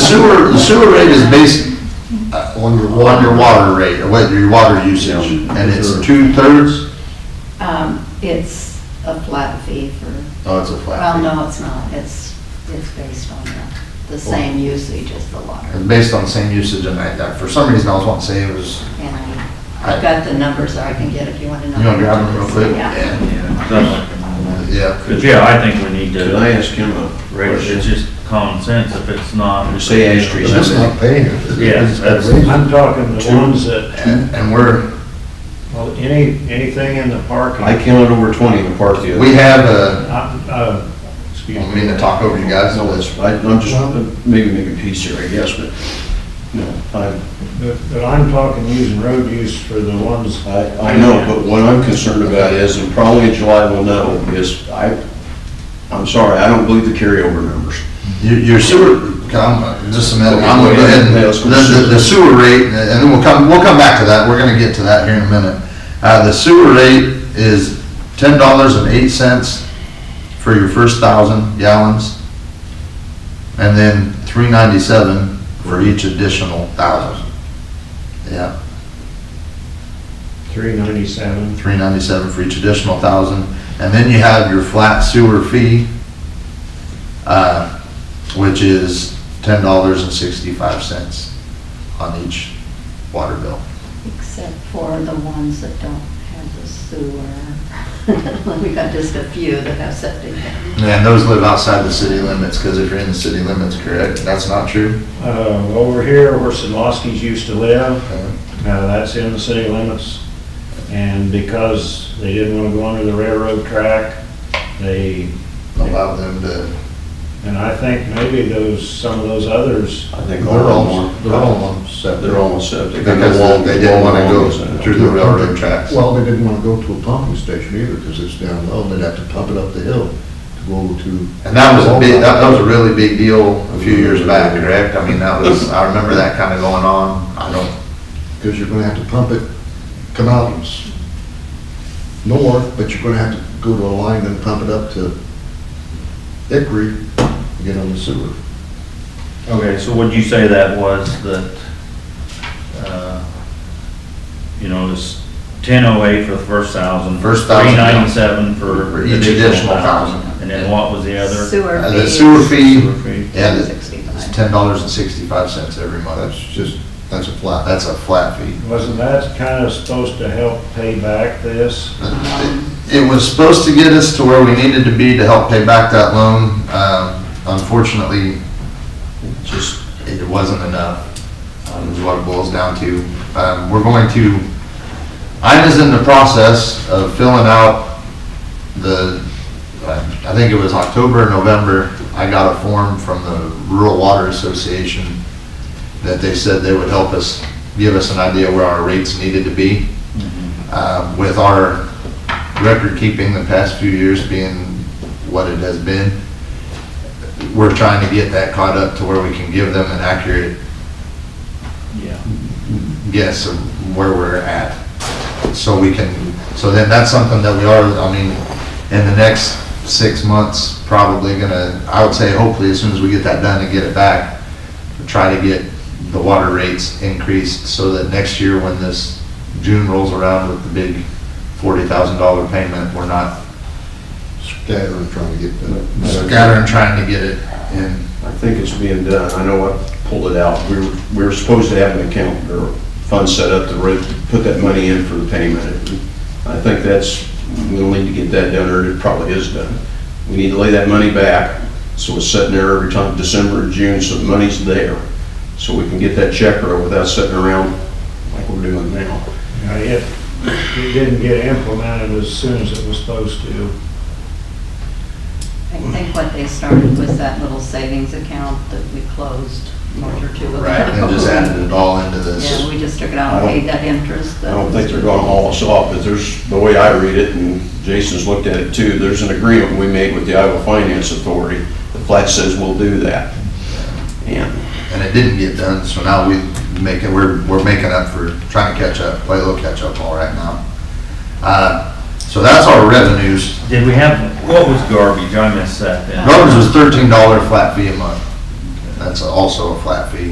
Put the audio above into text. sewer, the sewer rate is based uh, on your, wa- on your water rate, or what, your water usage, and it's two-thirds? Um, It's a flat fee for, Oh, it's a flat well, fee. no, it's not. It's, it's based on the, the same usage as the water. It's based on the same usage, and I, that- for some reason, I was wanting to say it was, And I- I've I, got the numbers I can get if you want to know. you wanna grab them real quick? Yeah. Yeah. Yeah, But yeah, I think we need Can I to, ask him a it's question? just common sense if it's not. You say asterisk. But that's not paying. Yeah, that's- I'm talking the ones that, And and we're, well, any, anything in the parking. I counted over twenty in the park the other. we have a, Uh, I don't mean to talk over you guys, No, but that's, I- I'm just, maybe making peace here, I guess, but, you know, I, But but I'm talking using road use for the ones. I, I know, but what I'm concerned about is, and probably in July we'll know, is I, I'm sorry, I don't believe the carryover numbers. Your your sewer, come, just a minute, I'm gonna go ahead and, Okay, let's go. the, the- the sewer rate, and then we'll come, we'll come back to that, we're gonna get to that here in a minute. Uh, the sewer rate is ten dollars and eight cents for your first thousand gallons, and then three ninety-seven for each additional thousand. Yeah, Three ninety-seven. three ninety-seven for each additional thousand, and then you have your flat sewer fee, uh, which is ten dollars and sixty-five cents on each water bill. Except for the ones that don't have the sewer. We got just a few that have septic. And those live outside the city limits, because if you're in the city limits, correct, that's not true? Uh, over here where Sadlowski's used to live, Okay. uh, that's in the city limits. And because they didn't want to go under the railroad track, they, Allow them to, and I think maybe those, some of those others, I think they're all of them all, are. they're all on septic. They're all septic. Because they didn't want to go through the railroad tracks. Well, they didn't want to go to a pumping station either, because it's down low, and they'd have to pump it up the hill to go to. And that was a big, that, that was a really big deal a few years back, correct? I mean, that was, I remember that kind of going on. I don't, Because you're gonna have to pump it, come out s- north, but you're gonna have to go to a line and pump it up to Hickory to get on the sewer. Okay, so would you say that was that, uh, you know, it's ten oh eight for the first thousand? First thousand, Three yeah. ninety-seven for For each additional additional thousand. thousand, and then what was the other? Sewer Uh, fee. the sewer fee, Sewer fee. yeah, the- it's Sixty-five. ten dollars and sixty-five cents every month. That's just, that's a flat. That's a flat fee. wasn't that kind of supposed to help pay back this? Um, It was supposed to get us to where we needed to be to help pay back that loan. Um, Unfortunately, just, it wasn't enough, um, is what it boils down to. Um, We're going to, Ina's in the process of filling out the, uh, I think it was October, or November, I got a form from the Rural Water Association that they said they would help us, give us an idea where our rates needed to be. Uh, With our record keeping the past few years being what it has been, we're trying to get that caught up to where we can give them an accurate Yeah. guess of where we're at. So we can, so then that's something that we are, I mean, in the next six months, probably gonna, I would say hopefully as soon as we get that done and get it back, try to get the water rates increased so that next year when this June rolls around with the big forty thousand dollar payment, we're not Scattering, trying to get the. scattering trying to get it in. I think it's being done. I know I pulled it out. We were, we were supposed to have an account or fund set up to re- put that money in for the payment. I think that's, we'll need to get that done, or it probably is done. We need to lay that money back, so it's sitting there every time, December or June, so the money's there. So we can get that check wrote without sitting around like we're doing now. Now, It, it didn't get implemented as soon as it was supposed to. I think what they started was that little savings account that we closed a month or two ago. Right, and just added it all into this. Yeah, we just took it out and paid that interest. I don't think they're gonna haul us off, but there's, the way I read it, and Jason's looked at it too, there's an agreement we made with the Iowa Finance Authority. The plat says we'll do that. And and it didn't get done, so now we make it, we're, we're making up for, trying to catch up, play a little catch-up ball right now. Uh, So that's our revenues. Did we have, what was garbage? I missed that then. Garbage was thirteen dollar flat fee a month. that's also a flat fee.